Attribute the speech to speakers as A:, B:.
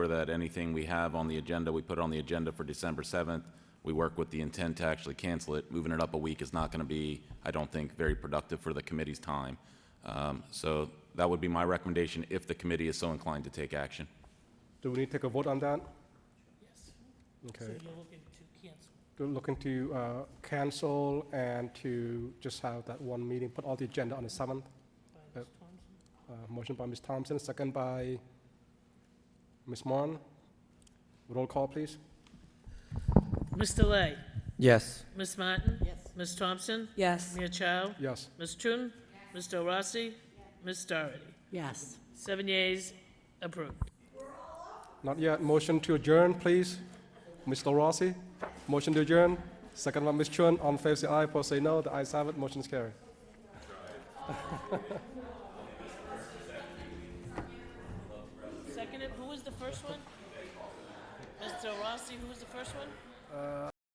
A: sure that anything we have on the agenda, we put it on the agenda for December 7th. We work with the intent to actually cancel it. Moving it up a week is not going to be, I don't think, very productive for the committee's time. Um, So that would be my recommendation if the committee is so inclined to take action.
B: Do we need to take a vote on that?
C: Yes, so
B: Okay.
C: you're looking to cancel.
B: We're Looking to uh, cancel and to just have that one meeting, put all the agenda on the 7th.
C: by
B: Yep.
C: Ms. Thompson?
B: Uh, Motion by Ms. Thompson, second by Ms. Marne. Roll call, please.
C: Mr. Lay?
D: Yes.
C: Ms. Martin? Yes. Ms. Thompson?
E: Yes.
C: Mia Chow?
B: Yes.
C: Ms. Chun? Mr. Rossi? Ms. Doherty?
E: Yes.
C: Seven yeas, approved.
B: Not yet. Motion to adjourn, please. Mr. Rossi, motion to adjourn. Second by Ms. Chun. On favor, say aye. Opposed, say no. The ayes have it. Motion is carried.
C: Seconded, who was the first one? Mr. Rossi, who was the first one?
B: Uh,